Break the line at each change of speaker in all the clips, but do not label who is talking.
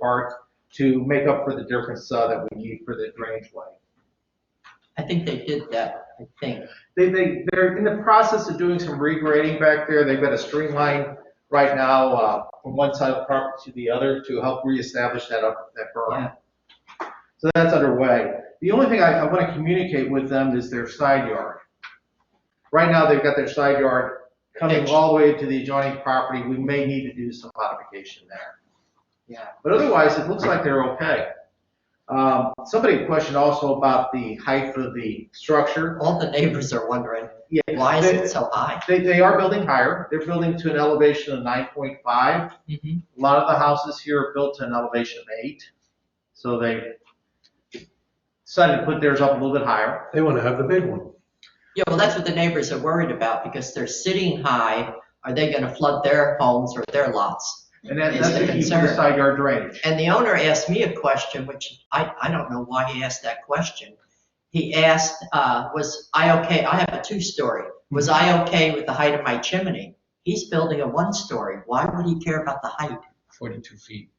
parts to make up for the difference uh, that we need for the drainage way.
I think they did that, I think.
They, they, they're in the process of doing some regrading back there. They've got a stream line right now, uh, from one side of the property to the other to help reestablish that up, that berm.
Yeah.
So that's underway. The only thing I, I want to communicate with them is their side yard. Right now, they've got their side yard coming
Pitch.
all the way to the adjoining property. We may need to do some modification there.
Yeah.
But otherwise, it looks like they're okay. Um, somebody questioned also about the height of the structure.
All the neighbors are wondering,
Yeah,
why is
they-
it so high?
They, they are building higher. They're building to an elevation of nine point five.
Mhm.
A lot of the houses here are built to an elevation of eight. So they decided to put theirs up a little bit higher.
They want to have the big one.
Yeah, well, that's what the neighbors are worried about, because they're sitting high, are they gonna flood their homes or their lots?
And that,
It's
that's
a
the key for the
concern.
side yard drainage.
And the owner asked me a question, which I, I don't know why he asked that question. He asked, uh, was I okay, I have a two-story, was I okay with the height of my chimney? He's building a one-story, why would he care about the height?
42 feet.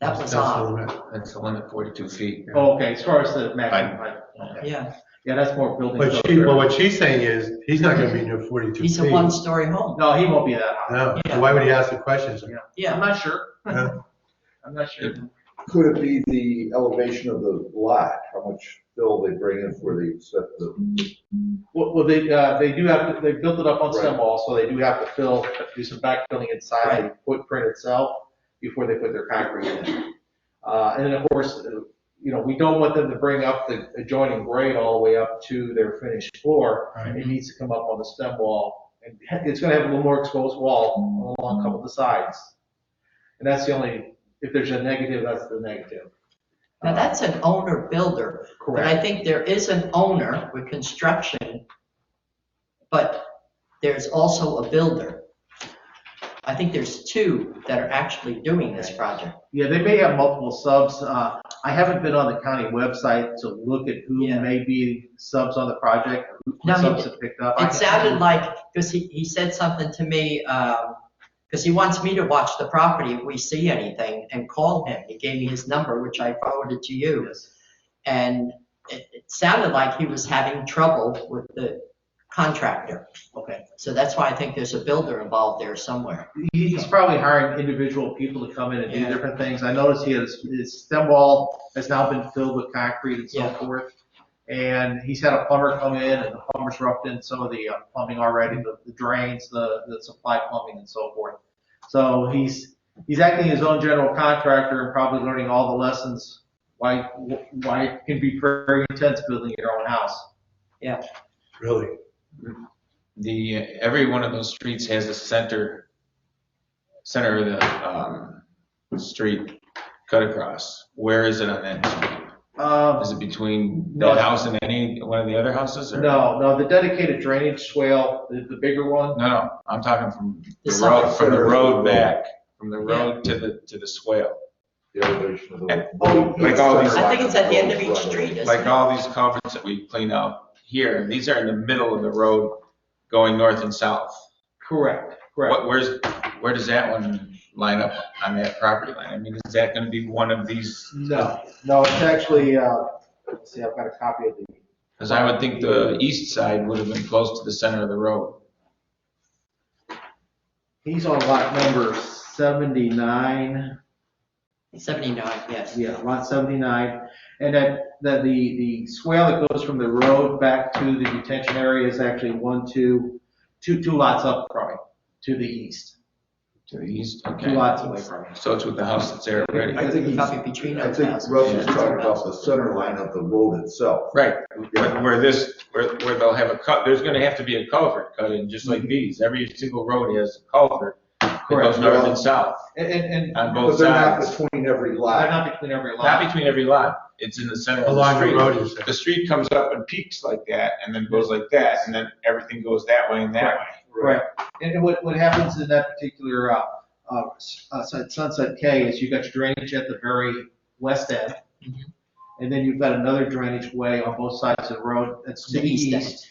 That was
That's what
odd,
I meant.
That's the one at 42 feet.
Oh, Okay, as far as the maximum height. okay.
yeah,
Yeah, that's more building.
But she, well, what she's saying is, he's not going to be near 42 feet.
he's a one-story home,
No, he won't be that high.
No,
Yeah.
so why would he ask the questions?
I'm
yeah,
not sure.
Yeah.
I'm not sure.
Could it be the elevation of the lot, how much fill they bring in for the, set the,
Well, well, they, uh, they do have, to- they built it up on stem
Right.
walls, so they do have to fill, have to do some backfilling inside the footprint itself before they put their concrete in. Uh, and then of course, uh, you know, we don't want them to bring up the adjoining grade all the way up to their finished floor.
Right.
It needs to come up on the stem wall, and it's gonna have a little more exposed wall along a couple of the sides. And that's the only, if there's a negative, that's the negative.
now that's an owner-builder. But
Correct.
I think there is an owner with construction, but there's also a builder. I think there's two that are actually doing this project.
Yeah, they may have multiple subs. Uh, I haven't been on the county website to look at who
Yeah.
may be subs on the project,
No,
who
he
subs have picked up. I
It
can-
sounded like, because he, he said something to me, because he wants me to watch the property if we see anything and call him. He gave me his number, which I forwarded to you.
Yes.
And it it sounded like he was having trouble with the contractor.
Okay.
So that's why I think there's a builder involved there somewhere.
He- He's probably hiring individual people to come in and do
Yeah.
different things. I noticed he has, his stem wall has now been filled with concrete and so
Yeah.
forth. And he's had a plumber come in and the plumber's roughed in some of the uh, plumbing already, the the drains, the, the supply plumbing and so forth. So he's, he's acting as his own general contractor and probably learning all the lessons why, why it can be very intense building your own house.
Really?
The, every one of those streets has a center, center of the, um, street cut across. Where is it on that? street?
Um,
Is it between
No.
that house and any, one of the other houses or?
no, no, the dedicated drainage swale, the, the bigger one,
No, no, I'm talking from
The
the
side.
road, from the road back, from the road to the, to the swale.
the elevation of the?
Oh,
like all these-
I think it's at the end of each street, isn't
Like all these culverts that we clean out here, these are in the middle of the road going north and south.
correct, correct.
What, where's, where does that one line up on that property line? I mean, is that gonna be one of these?
No, no, it's actually, uh, let's see, I've got a copy of the,
Cause I would think the east side would have been close to the center of the road.
he's on lot number seventy-nine,
79, yes.
yeah, lot seventy-nine. And that, that the, the swale that goes from the road back to the detention area is actually one, two, two, two lots up from it, to the east.
To the east,
Two
okay.
lots away from it.
So it's with the house that's there already.
I think he's,
Probably between
I
those
think
houses.
Russ was talking about the center line of the road itself.
Right,
Yeah.
where where this, where, where they'll have a cut, there's gonna have to be a culvert cut in, just
Mm-hmm.
like these. Every single road has a culvert that
Correct.
goes north and south
And, and, and
on
But
both
they're not
sides.
between every
they're
lot.
not between every
Not
lot.
between every lot, it's in the center of the
Along the
street.
road, you said.
the street comes up and peaks like that, and then goes like that, and then everything goes that way and that way.
Right. And and what, what happens in that particular, uh, uh, s- uh, Sunset K is you've got your drainage at the very west end.
Mhm.
And then you've got another drainage way on both sides of the road that's to
The
the
east end.
east.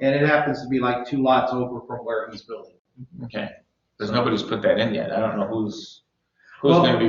And it happens to be like two lots over from where he's building.
Okay, because nobody's put that in yet, I don't know who's, who's gonna be